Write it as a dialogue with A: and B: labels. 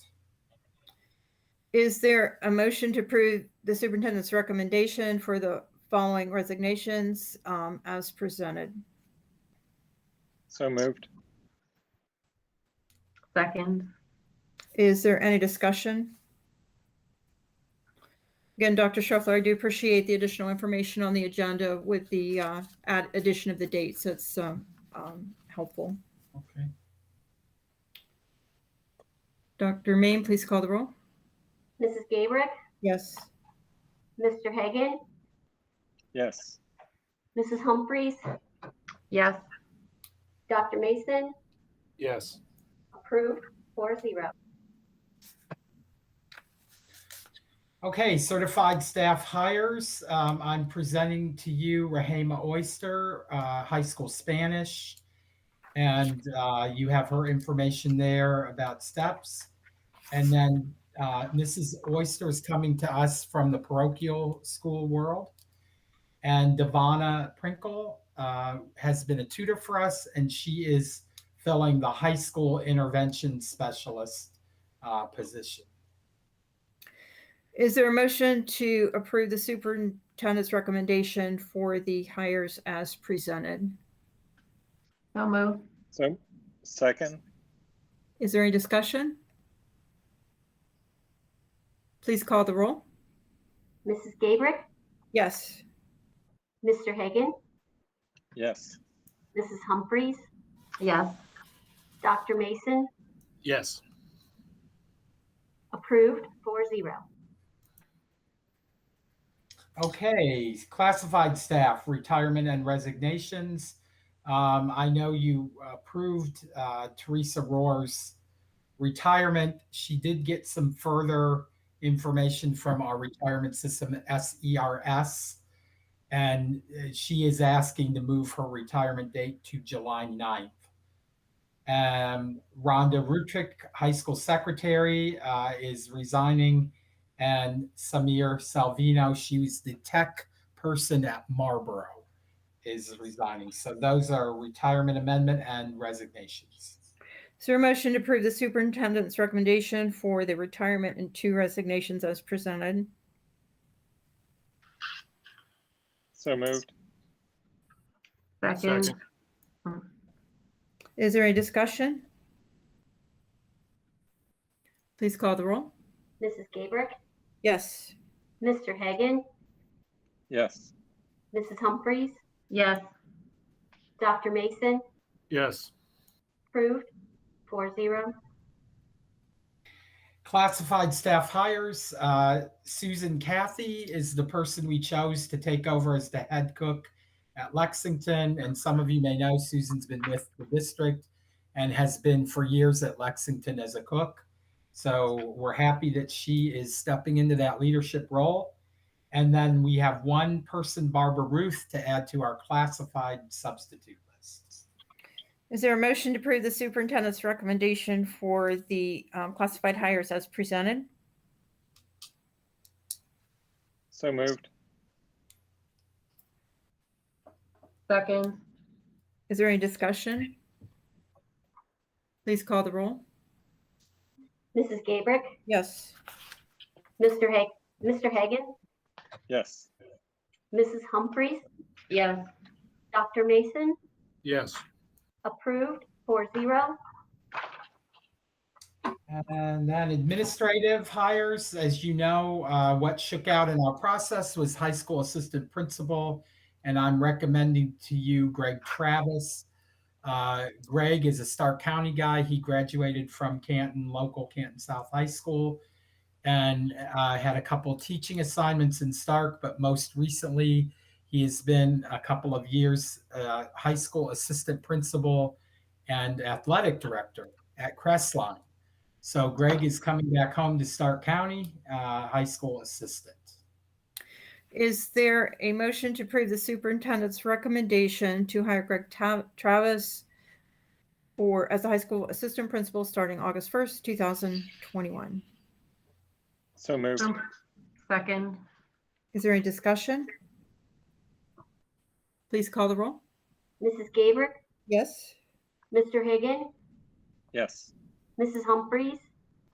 A: Is there a motion to approve the superintendent's recommendation for the following resignations um, as presented?
B: So moved.
C: Second,
A: Is there any discussion? Again, Dr. Scheffler, I do appreciate the additional information on the agenda with the uh, add addition of the dates. That's um, um, helpful.
D: Okay,
A: Dr. Main, please call the roll.
E: Mrs. Gabrick,
A: Yes.
E: Mr. Hagan,
B: Yes.
E: Mrs. Humphries,
C: yes,
E: Dr. Mason,
D: yes.
E: approved four zero.
D: Okay, certified staff hires. Um, I'm presenting to you Rahema Oyster, uh, high school Spanish. And, uh, you have her information there about steps. And then, uh, Mrs. Oyster is coming to us from the parochial school world. And Devana Prinkle, uh, has been a tutor for us and she is filling the high school intervention specialist, uh, position.
A: Is there a motion to approve the superintendent's recommendation for the hires as presented?
C: so move,
B: So second,
A: Is there any discussion? Please call the roll.
E: Mrs. Gabrick,
A: Yes.
E: Mr. Hagan,
B: yes.
E: Mrs. Humphries,
C: yes,
E: Dr. Mason,
D: Yes.
E: approved four zero.
D: Okay, classified staff, retirement and resignations. Um, I know you approved uh, Teresa Rohr's retirement. She did get some further information from our retirement system, SERS. And uh, she is asking to move her retirement date to July 9th. Um, Rhonda Rutrick, high school secretary, uh, is resigning and Samir Salvino, she was the tech person at Marlboro, is resigning. So those are retirement amendment and resignations.
A: Is there a motion to approve the superintendent's recommendation for the retirement and two resignations as presented?
B: So moved.
C: second,
A: Is there any discussion? Please call the roll.
E: Mrs. Gabrick,
A: Yes.
E: Mr. Hagan,
B: Yes.
E: Mrs. Humphries,
C: yes,
E: Dr. Mason,
B: Yes.
E: approved four zero.
D: Classified staff hires, uh, Susan Cathy is the person we chose to take over as the head cook at Lexington. And some of you may know Susan's been with the district and has been for years at Lexington as a cook. So we're happy that she is stepping into that leadership role. And then we have one person, Barbara Ruth, to add to our classified substitute list.
A: Is there a motion to approve the superintendent's recommendation for the um, classified hires as presented?
B: So moved.
C: second,
A: Is there any discussion? Please call the roll.
E: Mrs. Gabrick,
A: Yes.
E: Mr. Hag, Mr. Hagan,
B: Yes.
E: Mrs. Humphries,
C: yes,
E: Dr. Mason,
B: Yes.
E: approved four zero.
D: And then administrative hires, as you know, uh, what shook out in our process was high school assistant principal. And I'm recommending to you Greg Travis. Uh, Greg is a Stark County guy. He graduated from Canton, local Canton South High School. And uh, had a couple teaching assignments in Stark, but most recently, he has been a couple of years uh, high school assistant principal and athletic director at Crestline. So Greg is coming back home to Stark County, uh, high school assistant.
A: Is there a motion to approve the superintendent's recommendation to hire Greg Ta- Travis for, as a high school assistant principal starting August 1st, 2021?
B: So moved.
C: Um, second,
A: Is there any discussion? Please call the roll.
E: Mrs. Gabrick,
A: Yes.
E: Mr. Hagan,
B: Yes.
E: Mrs. Humphries,